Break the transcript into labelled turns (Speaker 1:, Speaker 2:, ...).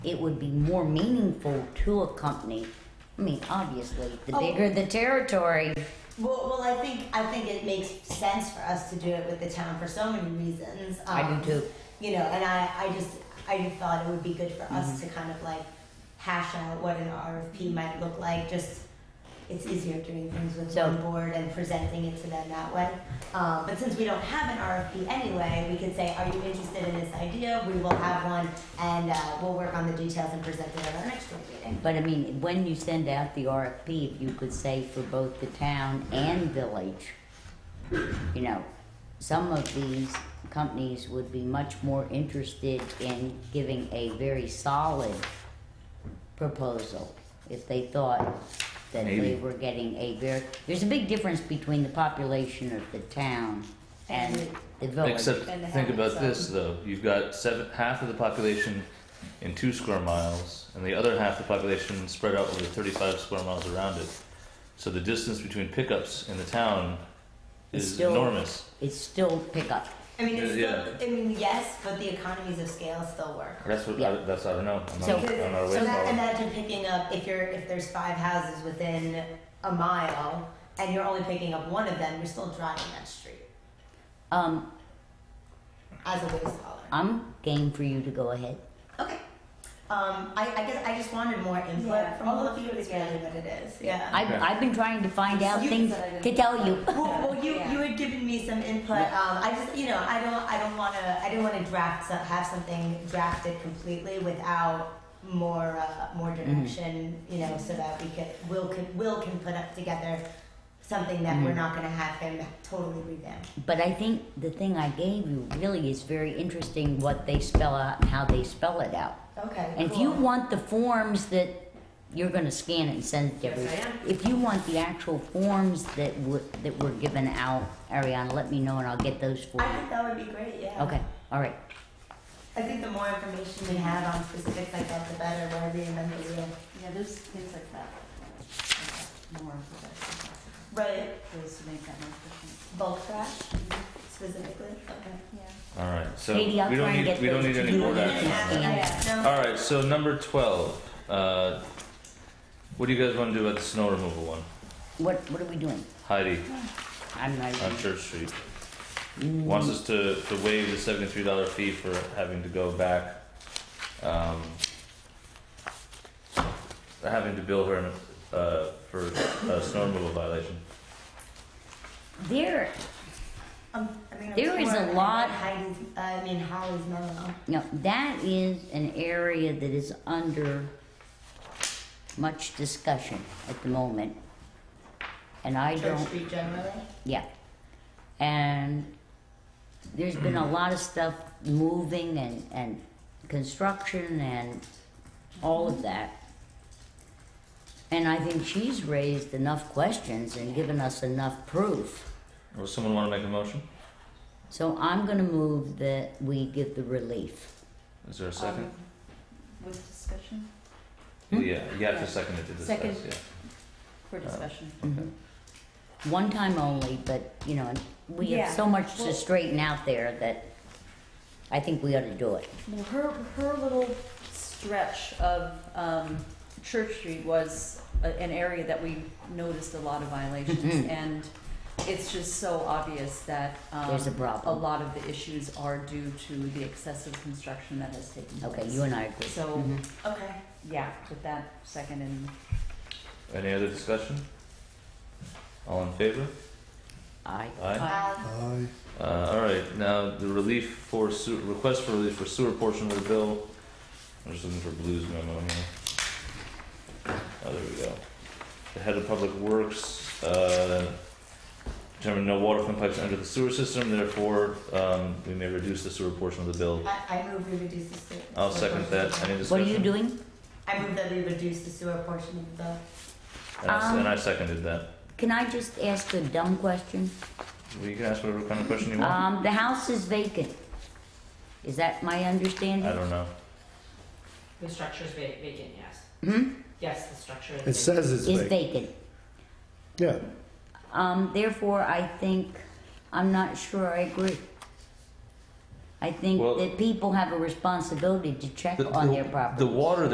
Speaker 1: it would be more meaningful to a company. I mean, obviously, the
Speaker 2: Oh.
Speaker 1: bigger the territory.
Speaker 2: Well, well, I think I think it makes sense for us to do it with the town for so many reasons. Um,
Speaker 1: I do too.
Speaker 2: You know, and I, I just I just thought it would be good for us
Speaker 1: Mm-hmm.
Speaker 2: to kind of like hash out what an RFP might look like. Just it's easier doing things with
Speaker 1: So-
Speaker 2: one board and presenting it to them that way. Um, but since we don't have an RFP anyway, we could say, "Are you interested in this idea? We will have one, and uh, we'll work on the details and present it at our next joint meeting."
Speaker 1: But I mean, when you send out the RFP, if you could say for both the town and village, you know, some of these companies would be much more interested in giving a very solid proposal if they thought that they
Speaker 3: Maybe.
Speaker 1: were getting a very, there's a big difference between the population of the town and the village.
Speaker 3: Except,
Speaker 2: And the
Speaker 3: think
Speaker 2: habits
Speaker 3: about
Speaker 2: of-
Speaker 3: this though. You've got seven, half of the population in two square miles, and the other half of the population spread out over 35 square miles around it. So the distance between pickups in the town
Speaker 1: It's
Speaker 3: is
Speaker 1: still-
Speaker 3: enormous.
Speaker 1: It's still pickup.
Speaker 2: I mean, it's
Speaker 3: Yeah.
Speaker 2: still, I mean, yes, but the economies of scale still work.
Speaker 3: That's what.
Speaker 1: Yeah.
Speaker 3: I, that's I don't know. I'm
Speaker 1: So-
Speaker 3: not, I'm not a
Speaker 2: Because, so
Speaker 3: waste
Speaker 2: that,
Speaker 3: model.
Speaker 2: imagine picking up if you're if there's five houses within a mile and you're only picking up one of them, you're still driving that street
Speaker 1: Um,
Speaker 2: as a waste hauler.
Speaker 1: I'm game for you to go ahead.
Speaker 2: Okay. Um, I, I guess I just wanted more input
Speaker 4: Yeah,
Speaker 2: from all
Speaker 4: I'll
Speaker 2: of you.
Speaker 4: look
Speaker 2: Is
Speaker 4: into
Speaker 2: really
Speaker 4: it.
Speaker 2: what it is. Yeah.
Speaker 1: I've,
Speaker 3: Okay.
Speaker 1: I've been trying to find out
Speaker 2: You-
Speaker 1: things to tell you.
Speaker 2: well, well, you
Speaker 4: Yeah.
Speaker 2: you had given me some input.
Speaker 1: Yeah.
Speaker 2: Um, I just you know I don't I don't want to I didn't want to draft some, have something drafted completely without more uh, more direction. You know, so that we could will could will can put up together something that we're not going to have him totally revamp.
Speaker 1: But I think the thing I gave you really is very interesting what they spell out and how they spell it out.
Speaker 2: Okay.
Speaker 1: And if you want the forms that you're going to scan it and send it to
Speaker 2: Yes, I
Speaker 1: everybody, if you want the actual forms that were, that were given out, Ariana, let me know and I'll get those for
Speaker 2: I
Speaker 1: you.
Speaker 2: think that would be great. Yeah.
Speaker 1: Okay, all right.
Speaker 2: I think the more information we have on specifics like that, the better. Whatever you remember, real.
Speaker 4: Yeah, there's things like that. that are More important,
Speaker 2: Right.
Speaker 4: ways to make that more efficient.
Speaker 2: Bulk trash specifically. Okay.
Speaker 4: Yeah.
Speaker 3: All right. So
Speaker 1: Katie, I'll
Speaker 3: we
Speaker 1: try
Speaker 3: don't
Speaker 1: and
Speaker 3: need.
Speaker 1: get
Speaker 3: We don't
Speaker 1: those
Speaker 3: need
Speaker 1: to
Speaker 3: any
Speaker 1: you
Speaker 3: board
Speaker 1: and
Speaker 3: action.
Speaker 1: you
Speaker 3: on
Speaker 1: can
Speaker 3: that.
Speaker 1: scan it.
Speaker 2: Yeah.
Speaker 3: All right. So number 12. Uh, what do you guys want to do about the snow removal one,
Speaker 1: What, what are we doing?
Speaker 3: Heidi?
Speaker 1: I'm not even.
Speaker 3: on Church Street. Wants us to, to waive the seventy-three dollar fee for having to go back, um, having to bill her, uh, for a snow removal violation.
Speaker 1: There,
Speaker 2: Um, I mean, I'm
Speaker 1: There is a
Speaker 2: torn.
Speaker 1: lot-
Speaker 2: Heidi's, uh, I mean, Holly's mellow.
Speaker 1: Now, that is an area that is under much discussion at the moment. And I
Speaker 2: Church
Speaker 1: don't,
Speaker 2: Street generally.
Speaker 1: yeah. And there's been a lot of stuff moving and, and construction and all of that. And I think she's raised enough questions and given us enough proof.
Speaker 3: Or someone wanna make a motion?
Speaker 1: So I'm gonna move that we give the relief.
Speaker 3: Is there a second?
Speaker 4: Um, With discussion,
Speaker 1: Hmm?
Speaker 3: Yeah, you have
Speaker 4: Yeah.
Speaker 3: to second it to discuss,
Speaker 4: Second.
Speaker 3: yeah.
Speaker 4: for
Speaker 1: Uh,
Speaker 4: discussion.
Speaker 3: Okay.
Speaker 1: One time only, but, you know, we have
Speaker 4: Mm-hmm. Yeah,
Speaker 1: so much to
Speaker 4: well-
Speaker 1: straighten out there that I think we ought to do it.
Speaker 4: Well, her, her little stretch of, um, Church Street was a, an area that we noticed a lot of violations.
Speaker 1: Mhm.
Speaker 4: And it's just so obvious that, um.
Speaker 1: There's a
Speaker 4: a
Speaker 1: problem.
Speaker 4: lot of the issues are due to the excessive construction that has taken place.
Speaker 1: Okay, you and I agree.
Speaker 4: So,
Speaker 1: Mhm.
Speaker 2: Okay.
Speaker 4: yeah, with that second and
Speaker 3: Any other discussion? All in favor?
Speaker 1: Aye.
Speaker 3: Aye.
Speaker 2: Um,
Speaker 5: Aye.
Speaker 3: Uh, all right, now the relief for sewer, request for relief for sewer portion of the bill. I'm just looking for Blue's memo here. Oh, there we go. The head of public works, uh, determined no water from pipes under the sewer system, therefore, um, we may reduce the sewer portion of the bill.
Speaker 2: I, I move we reduce the sewer.
Speaker 3: I'll second that. Any discussion?
Speaker 1: What are you doing?
Speaker 2: I move that we reduce the sewer portion of the.
Speaker 3: And I, s-
Speaker 1: Um,
Speaker 3: and I seconded that.
Speaker 1: Can I just ask a dumb question?
Speaker 3: Well, you can ask whatever kind of question you want.
Speaker 1: Um, the house is vacant. Is that my understanding?
Speaker 3: I don't know.
Speaker 6: The structure is va- vacant, yes.
Speaker 1: Hmm?
Speaker 6: Yes, the structure is
Speaker 5: It
Speaker 6: vacant.
Speaker 5: says it's
Speaker 1: Is
Speaker 5: vacant.
Speaker 1: vacant.
Speaker 5: Yeah.
Speaker 1: Um, therefore, I think, I'm not sure I agree. I think
Speaker 3: Well-
Speaker 1: that people have a responsibility to check on their property.
Speaker 3: The water